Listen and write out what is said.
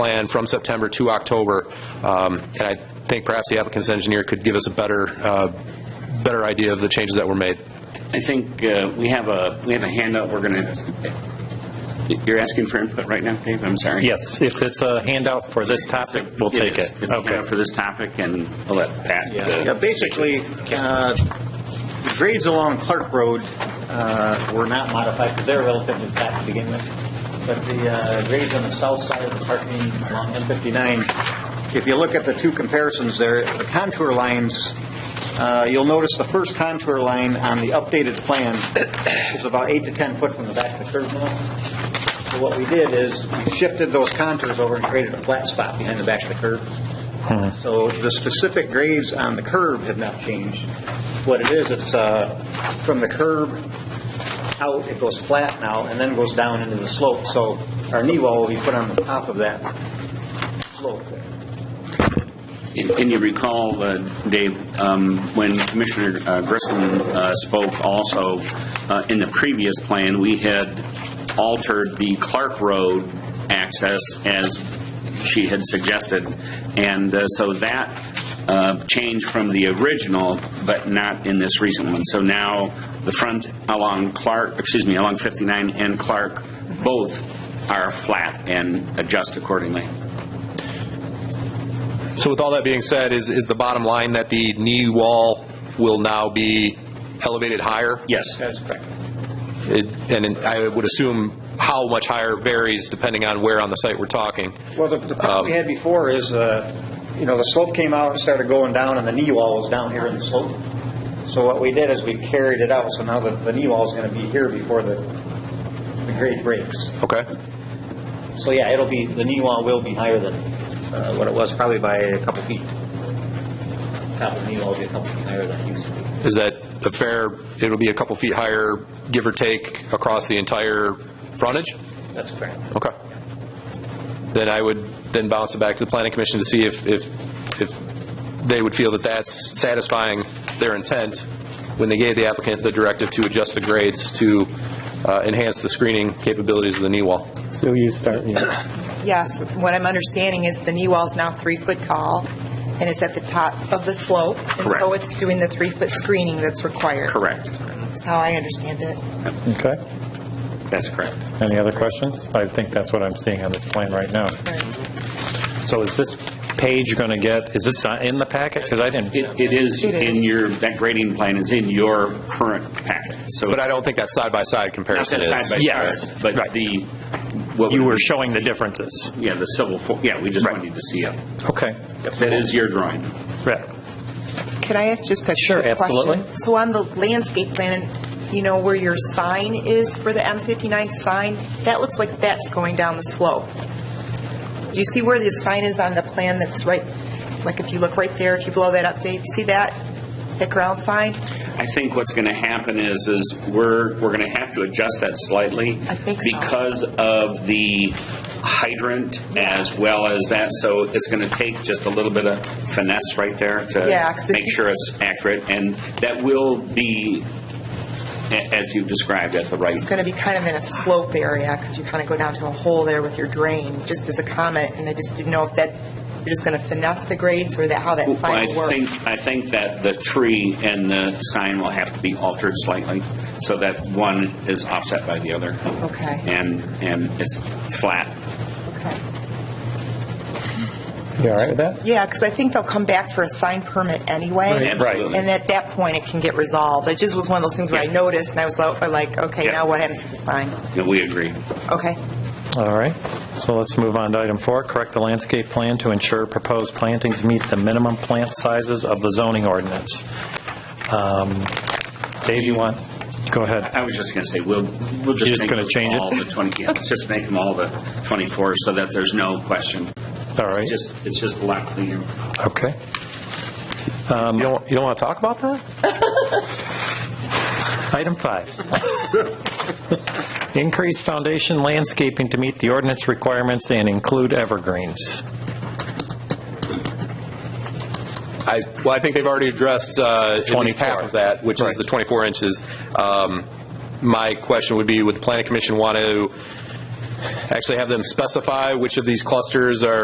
plan from September to October, um, and I think perhaps the applicant's engineer could give us a better, uh, better idea of the changes that were made. I think uh, we have a, we have a handout we're going to, you're asking for input right now, Dave? I'm sorry. Yes, if it's a handout for this topic, we'll take is. it. It's a Okay. handout for this topic, and I'll let Pat. uh, Yeah, basically, uh, the grades along Clark Road uh, were not modified because they're relatively flat to begin with. But the uh, grades on the south side of the parking along M59, if you look at the two comparisons there, the contour lines, uh, you'll notice the first contour line on the updated plan is about eight to 10 foot from the back of the curb now. So what we did is we shifted those contours over and created a flat spot behind the back of the curb. So the specific grades on the curb have not changed. What it is, it's uh, from the curb out, it goes flat now and then goes down into the slope. So our knee wall will be put on the top of that slope there. And and you recall, uh, Dave, um, when Commissioner uh, Grissom uh, spoke also, uh, in the previous plan, we had altered the Clark Road access as she had suggested. And uh, so that uh, changed from the original, but not in this recent one. So now the front along Clark, excuse me, along 59 and Clark, both are flat and adjust accordingly. So with all that being said, is, is the bottom line that the knee wall will now be elevated higher? Yes. That is correct. It- And I would assume how much higher varies depending on where on the site we're talking. Well, the, the problem we had before is, uh, you know, the slope came out and started going down, and the knee wall was down here in the slope. So what we did is we carried it out, so now the, the knee wall is going to be here before the, the grade breaks. Okay? So yeah, it'll be, the knee wall will be higher than uh, what it was, probably by a couple feet. Top of the knee wall will be a couple feet higher than it used to be. Is that a fair, it'll be a couple feet higher, give or take, across the entire frontage? That's correct. Okay. Then I would then bounce it back to the planning commission to see if, if, if they would feel that that's satisfying their intent when they gave the applicant the directive to adjust the grades to uh, enhance the screening capabilities of the knee wall. So you start, yeah. Yes, what I'm understanding is the knee wall is now three foot tall, and it's at the top of the slope. And so Correct. it's doing the three-foot screening that's required. Correct. That's how I understand it. Okay. That's correct. Any other questions? I think that's what I'm seeing on this plan right now. So is this page going to get, is this not in the packet? Because I didn't, It it is It in is. your, that grading plan is in your current packet, so. But I don't think that side-by-side Not comparison that is. side by side, Yes. But Right. the. what you we- were showing the differences. Yeah, the civil, fo- yeah, we just wanted to see it. Okay. That is your drawing. Right. Can I ask just a Sure, quick question? absolutely. So on the landscape plan, you know, where your sign is for the M59 sign, that looks like that's going down the slope. Do you see where the sign is on the plan that's right, like if you look right there, if you blow that up, Dave, you see that? That ground sign? I think what's going to happen is, is we're, we're going to have to adjust that slightly. I think so. Because of the hydrant as well as that, so it's going to take just a little bit of finesse right there Yeah, to 'cause if make you- sure it's accurate, and that will be, a- as you described, at the right It's going to be kind of in a slope area because you kind of go down to a hole there with your drain, just as a comment. And I just didn't know if that, you're just going to finesse the grades or that, how that Well, I final works. think, I think that the tree and the sign will have to be altered slightly so that one is offset by the other. Okay. And, and it's flat. Okay. You all right with that? Yeah, because I think they'll come back for a sign permit anyway. Right, absolutely. And at that point, it can get resolved. It just was one of those things where I Yeah. noticed and I was like- like, okay, Yeah. now what happens to the sign? Yeah, We agree. Okay. All right. So let's move on to item four, correct the landscape plan to ensure proposed plantings meet the minimum plant sizes of the zoning ordinance. Um, Dave, you want, go ahead. I was just going to say, we'll, we'll just. You're just make gonna them change it? All the 20, yeah, just make them all the 24 so that there's no question. All right. Just, it's just a lot cleaner. Okay. Um, You don't, you don't want to talk about that? Item five. Increase foundation landscaping to meet the ordinance requirements and include evergreens. I, well, I think they've already addressed uh, at least 24. half of that, which is Right. the 24 inches. Um, My question would be, would the planning commission want to actually have them specify which of these clusters are